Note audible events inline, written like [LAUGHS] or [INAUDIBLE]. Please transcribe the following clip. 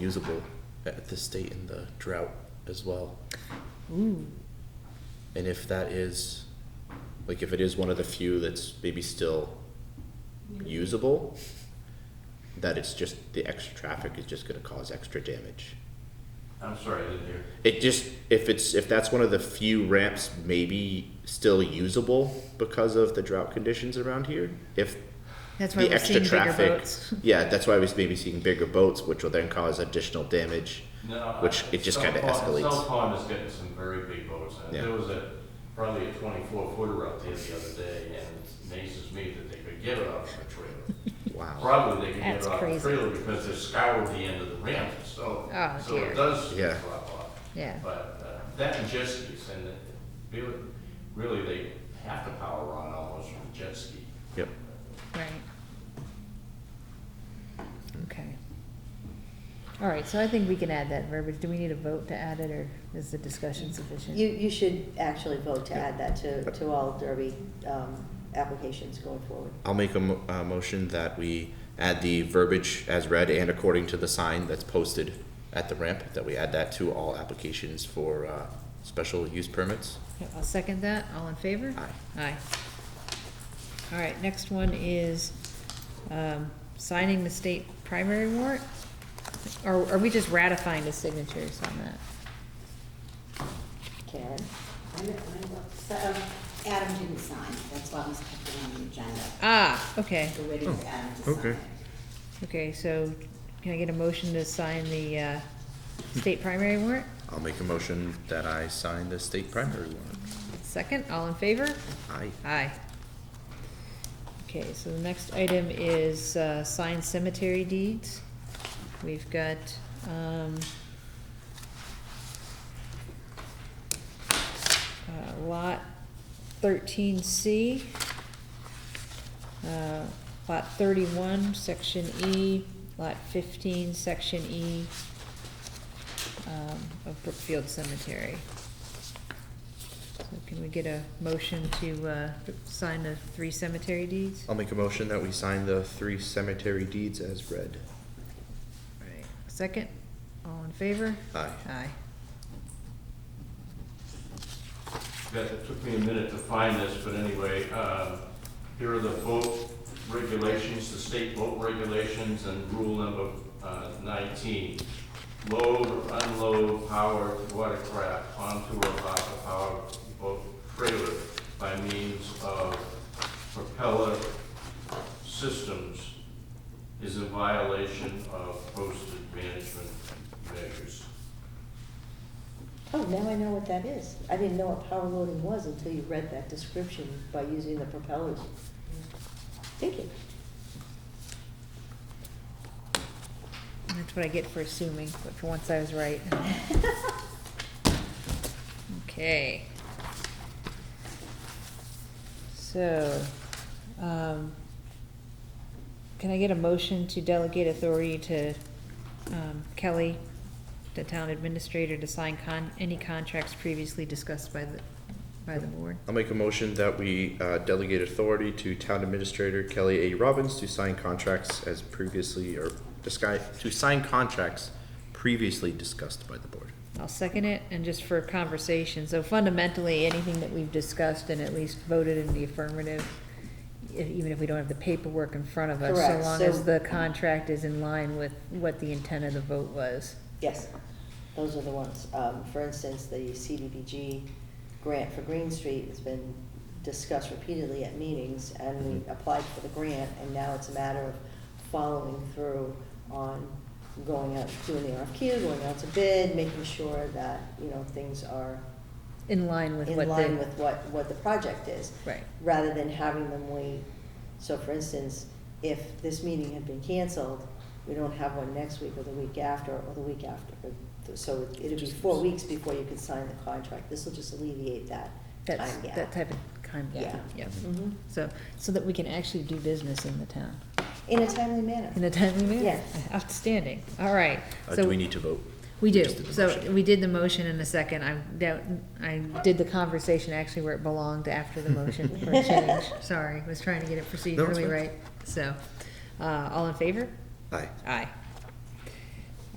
usable at the state in the drought as well. Ooh. And if that is, like, if it is one of the few that's maybe still usable, that it's just, the extra traffic is just gonna cause extra damage. I'm sorry, I didn't hear. It just, if it's, if that's one of the few ramps maybe still usable because of the drought conditions around here, if That's why the we're extra seeing bigger traffic. boats. [LAUGHS] Yeah, that's why we're maybe seeing bigger boats, which will then cause additional [LAUGHS] damage. No, Which I- it just South kinda Pond- escalates. South Pond is getting some very big boats. and Yeah. There was a, probably a twenty-four footer out there the other day, and it amazes me that they could get it off the trailer. [LAUGHS] Wow. Probably they could get That's it off the crazy. trailer because they scoured the end of the ramp, so, Oh, so dear. it does Yeah. drop off. Yeah. But uh, that and jet skis, and it- really, really they have to power on almost from jet ski. Yep. Right. Okay. All right, so I think we can add that verbiage. Do we need a vote to add it, or is the discussion sufficient? You, you should actually vote to add that to, to all Derby, um, applications going forward. I'll make a, mo- a motion that we add the verbiage as read and according to the sign that's posted at the ramp, that we add that to all applications for, uh, special use permits. Okay, I'll second that. All in favor? Aye. Aye. All right, next one is, um, signing the state primary warrant? Or are we just ratifying the signatures on that? Karen? So um, Adam didn't sign, that's why I was put it on the agenda. Ah, okay, We're waiting for Adam to sign. okay. okay, so can I get a motion to sign the, uh, state primary warrant? I'll make a motion that I sign the state primary warrant. Second, all in favor? Aye. Aye. Okay, so the next item is uh, signed cemetery deeds. We've got, um, uh, lot thirteen C, uh, lot thirty-one, section E, lot fifteen, section E, um, of Brookfield Cemetery. So can we get a motion to, uh, sign the three cemetery deeds? I'll make a motion that we sign the three cemetery deeds as read. Right. Second, all in favor? Aye. Aye. Beth, it took me a minute to find this, but anyway, um, here are the boat regulations, the state boat regulations, and rule number uh, 19. Load or unload powered watercraft onto or off a powered boat trailer by means of propeller systems is in violation of posted management measures. Oh, now I know what that is. I didn't know what power loading was until you read that description by using the propellers. Thank you. That's what I get for assuming, but for once I was right. Okay. So, um, can I get a motion to delegate authority to, um, Kelly, the town administrator, to sign con, any contracts previously discussed by the, by the board? I'll make a motion that we uh, delegate authority to Town Administrator Kelly A. Robbins to sign contracts as previously, or disguise, to sign contracts previously discussed by the board. I'll second it, and just for conversation, so fundamentally, anything that we've discussed and at least voted in the affirmative, e- even if we don't have the paperwork in front of us, so Correct, long so- as the contract is in line with what the intent of the vote was. Yes, those are the ones. Um, for instance, the CDBG grant for Green Street has been discussed repeatedly at meetings, and Mm-hmm. we applied for the grant, and now it's a matter of following through on going out, doing the RFQ, going out to bid, making sure that, you know, things are In line with in what line with the, what, what the project is. Right. Rather than having them wait, so for instance, if this meeting had been canceled, we don't have one next week or the week after, or the week after. So it'd be four weeks before you could sign the contract, this will just alleviate that that's, time that gap. type of kind, yeah, Yeah. yeah. Mhm. So, so that we can actually do business in the town, In a timely manner. in a timely manner. Yes. Outstanding, all right. Uh, So- Do we need to vote? We do, just did the so motion. we did the motion in a second, I doubt, I did the conversation actually where it belonged after the motion [LAUGHS] for a change, sorry, was trying to get it No, it's procedurally fine. right, so, uh, all in favor? Aye. Aye.